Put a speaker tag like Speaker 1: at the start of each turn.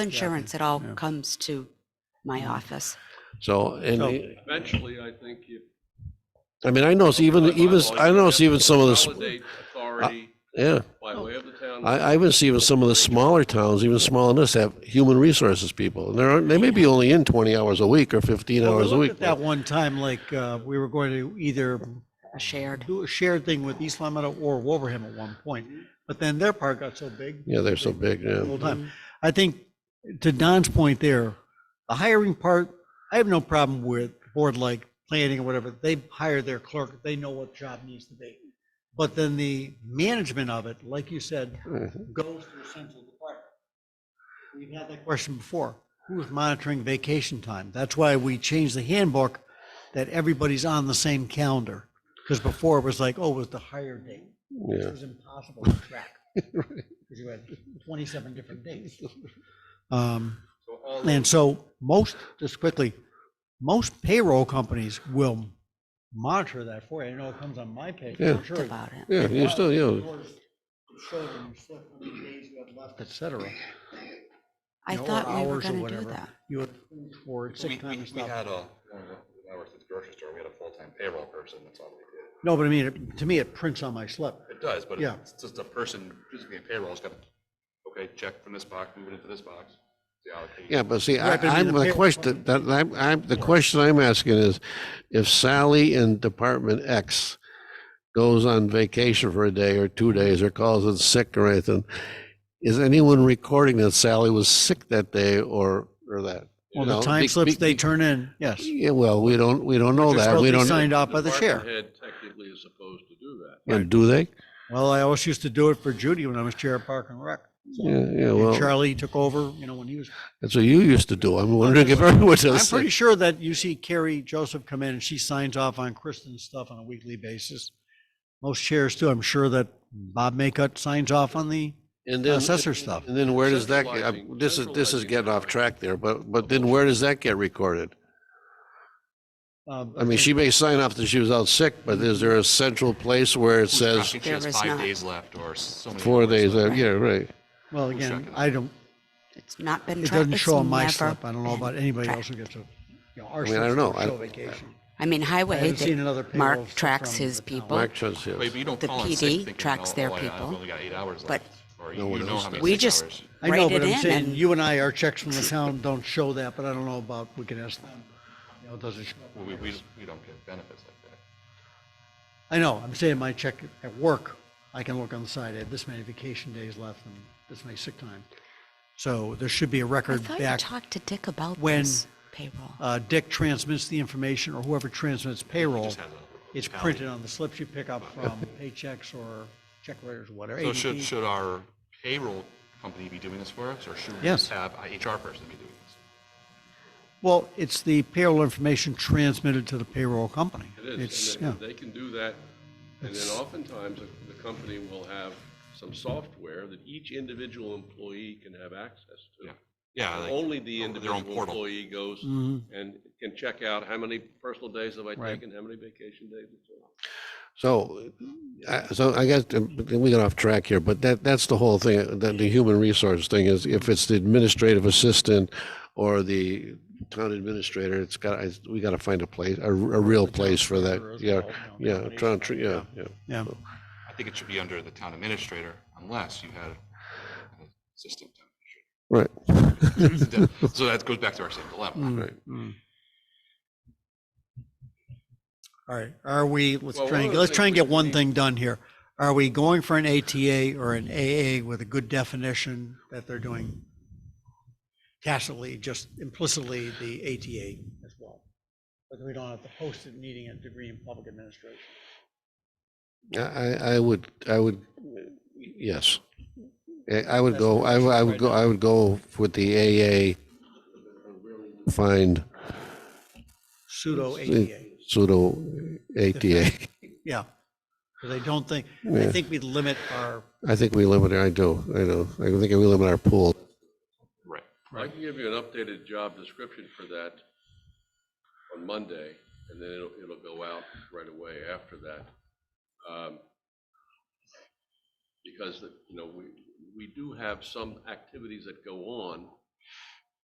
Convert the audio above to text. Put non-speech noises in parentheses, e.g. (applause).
Speaker 1: insurance, it all comes to
Speaker 2: Mm.
Speaker 1: my office.
Speaker 3: So,
Speaker 2: Oh.
Speaker 3: and, the-
Speaker 4: Eventually, I think you.
Speaker 3: I mean, I know it's even, even, I know it's even some of the, s-
Speaker 4: Consolidate authority
Speaker 3: yeah.
Speaker 4: by way of the town.
Speaker 3: I, I even see even some of the smaller towns, even smaller than us, have human resources people. And they're, they may be only in twenty hours a week or fifteen
Speaker 2: Well, we
Speaker 3: hours a
Speaker 2: looked
Speaker 3: week.
Speaker 2: at That one time, like, uh, we were going to either
Speaker 1: A shared.
Speaker 2: do a shared thing with East Long Meadow or Wolverham at one point, but then their part got so big.
Speaker 3: Yeah, they're so big, yeah.
Speaker 2: the whole time. I think, to Don's point there, the hiring part, I have no problem with board like planning or whatever. They hire their clerk, they know what job needs to be. But then the management of it, like you said, goes to the central department. We've had that question before. Who's monitoring vacation time? That's why we changed the handbook that everybody's on the same calendar. Because before it was like, oh, it was the hire date.
Speaker 3: Yeah.
Speaker 2: It was impossible to
Speaker 3: (laughs)
Speaker 2: track. Because you had twenty-seven different dates. Um,
Speaker 4: So all
Speaker 2: and so most, just quickly, most payroll companies will monitor that for you. I know it comes on my pay.
Speaker 3: Yeah.
Speaker 2: I'm sure it
Speaker 1: About it.
Speaker 3: Yeah, you still, you know,
Speaker 2: Yours showed when you slept, how many days you had left, Et cetera.
Speaker 1: I
Speaker 2: you know, or
Speaker 1: thought we were
Speaker 2: hours or
Speaker 1: gonna do
Speaker 2: whatever.
Speaker 1: that.
Speaker 2: You had, or sick time and
Speaker 5: We
Speaker 2: stuff.
Speaker 5: had a, when I worked at the grocery store, we had a full-time payroll person, that's all we
Speaker 2: No, but I mean, it- to me, it prints on my slip.
Speaker 5: did. It does, but
Speaker 2: Yeah.
Speaker 5: it's just a person physically in payroll, has got, okay, check from this box, move it into this box, the allocation.
Speaker 3: yeah, but see, I,
Speaker 2: Right, but I mean,
Speaker 3: I'm,
Speaker 2: the
Speaker 3: the
Speaker 2: pay-
Speaker 3: question, that, I'm, I'm, the question I'm asking is, if Sally in Department X goes on vacation for a day or two days or calls in sick or anything, is anyone recording that Sally was sick that day or, or that? you
Speaker 2: Well, the
Speaker 3: know?
Speaker 2: time
Speaker 3: Be-
Speaker 2: slips
Speaker 3: be-
Speaker 2: they turn in, yes.
Speaker 3: Yeah, well, we don't, we don't know
Speaker 2: They're
Speaker 3: that.
Speaker 2: supposed
Speaker 3: We
Speaker 2: to be
Speaker 3: don't.
Speaker 2: Signed off by the
Speaker 4: department
Speaker 2: chair.
Speaker 4: head technically is supposed to do that.
Speaker 3: And do they?
Speaker 2: Well, I always used to do it for Judy when I was chair of Park and Rec.
Speaker 3: Yeah, yeah,
Speaker 2: And
Speaker 3: well,
Speaker 2: Charlie took over, you know, when he was,
Speaker 3: that's what you used to do. I'm wondering if everyone
Speaker 2: I'm
Speaker 3: does.
Speaker 2: pretty sure that you see Carrie Joseph come in and she signs off on Kristen's stuff on a weekly basis. Most chairs do. I'm sure that Bob Maycutt signs off on the
Speaker 3: And then,
Speaker 2: assessor stuff.
Speaker 3: and then where does that, get- uh,
Speaker 4: Centralizing-
Speaker 3: this is, this is
Speaker 4: centralizing
Speaker 3: getting off track there, but, but then where does that get recorded?
Speaker 2: Um,
Speaker 3: I mean, she may sign off that she was out sick, but is there a central place where it says
Speaker 5: She has
Speaker 1: There is
Speaker 5: five
Speaker 1: not.
Speaker 5: days left or so many.
Speaker 3: four
Speaker 5: hours
Speaker 3: days,
Speaker 5: left.
Speaker 3: uh, yeah, right.
Speaker 2: Well,
Speaker 5: checking
Speaker 2: again,
Speaker 5: it.
Speaker 2: I don't,
Speaker 1: It's not been.
Speaker 2: it
Speaker 1: tra-
Speaker 2: doesn't
Speaker 1: it's
Speaker 2: show on my
Speaker 1: never
Speaker 2: slip. I don't know
Speaker 1: been
Speaker 2: about anybody
Speaker 1: tracked.
Speaker 2: else who gets a, you know, our
Speaker 3: I mean, I
Speaker 2: slips
Speaker 3: don't know.
Speaker 2: don't
Speaker 3: I-
Speaker 2: show vacation.
Speaker 1: I mean, highway,
Speaker 2: haven't seen another
Speaker 1: that
Speaker 2: payroll
Speaker 1: Mark
Speaker 2: slip
Speaker 1: tracks
Speaker 2: from
Speaker 1: his
Speaker 2: the town.
Speaker 1: people.
Speaker 3: Mark says,
Speaker 5: Wait,
Speaker 3: yes.
Speaker 5: but you don't
Speaker 1: The
Speaker 5: call in sick
Speaker 1: PD
Speaker 5: thinking,
Speaker 1: tracks
Speaker 5: "Oh,
Speaker 1: their
Speaker 5: oh, I- I've
Speaker 1: people,
Speaker 5: only got eight hours
Speaker 1: but
Speaker 5: left," or
Speaker 3: no
Speaker 5: you
Speaker 3: one
Speaker 5: know
Speaker 3: else
Speaker 5: how many
Speaker 1: We
Speaker 5: sick
Speaker 1: just
Speaker 5: hours.
Speaker 2: I know,
Speaker 1: write it
Speaker 2: but I'm
Speaker 1: in
Speaker 2: saying,
Speaker 1: and
Speaker 2: you and I, our checks
Speaker 3: (laughs)
Speaker 2: from the town don't show that, but I don't know about, we can ask them. You know, does it show?
Speaker 5: Well, We, we, we don't get benefits like that.
Speaker 2: I know, I'm saying my check at work, I can look on the side, I have this many vacation days left and this many sick time. So there should be a
Speaker 1: I
Speaker 2: record
Speaker 1: thought you
Speaker 2: back.
Speaker 1: talked to Dick about
Speaker 2: when-
Speaker 1: this payroll.
Speaker 2: Uh, Dick transmits the information or whoever transmits payroll.
Speaker 5: has a
Speaker 2: It's printed on the slips you pick up from paychecks or check writers, or whatever.
Speaker 5: So should,
Speaker 2: ADP.
Speaker 5: should our payroll company be doing this for us, or should we
Speaker 2: Yes.
Speaker 5: just have a HR person be doing this?
Speaker 2: Well, it's the payroll information transmitted to the payroll company.
Speaker 4: It is,
Speaker 2: It's,
Speaker 4: and
Speaker 2: yeah.
Speaker 4: they- they can do that, and then oftentimes, the- the company will have some software that each individual employee can have access to.
Speaker 5: Yeah. Yeah, like
Speaker 4: Only the
Speaker 5: their own
Speaker 4: individual
Speaker 5: portal.
Speaker 4: employee goes
Speaker 2: Mhm.
Speaker 4: and can check out how many personal days have I
Speaker 2: Right.
Speaker 4: taken, how many vacation days, and so on.
Speaker 3: So, I- so I guess, um, we got off track here, but that, that's the whole thing, the, the human resource thing is if it's the administrative assistant or the town administrator, it's got, I- we gotta find a place, a, a real place for that, yeah, yeah, town, tr- yeah, yeah.
Speaker 2: Yeah.
Speaker 5: I think it should be under the town administrator unless you had an assistant town
Speaker 3: Right,
Speaker 5: administrator. So that goes back to our same dilemma.
Speaker 3: right.
Speaker 2: All right, are we, let's
Speaker 4: Well,
Speaker 2: try
Speaker 4: one
Speaker 2: and,
Speaker 4: of the
Speaker 2: let's try
Speaker 4: things
Speaker 2: and
Speaker 4: we
Speaker 2: get one
Speaker 4: need-
Speaker 2: thing done here. Are we going for an ATA or an AA with a good definition that they're doing tacitly, just implicitly, the ATA as well? But we don't have to post it needing a degree in public administration.
Speaker 3: I, I- I would, I would, yes. I- I would go, I would- I would go, I would go with the AA, find
Speaker 2: Pseudo ATA,
Speaker 3: pseudo ATA.
Speaker 2: yeah. Because I don't think, I think we limit our,
Speaker 3: I think we limit, our- I do, I know, I think we limit our pool.
Speaker 5: Right.
Speaker 4: I can give you an updated job description for that on Monday, and then it'll, it'll go out right away after that. Um, Because, the- you know, we, we do have some activities that go on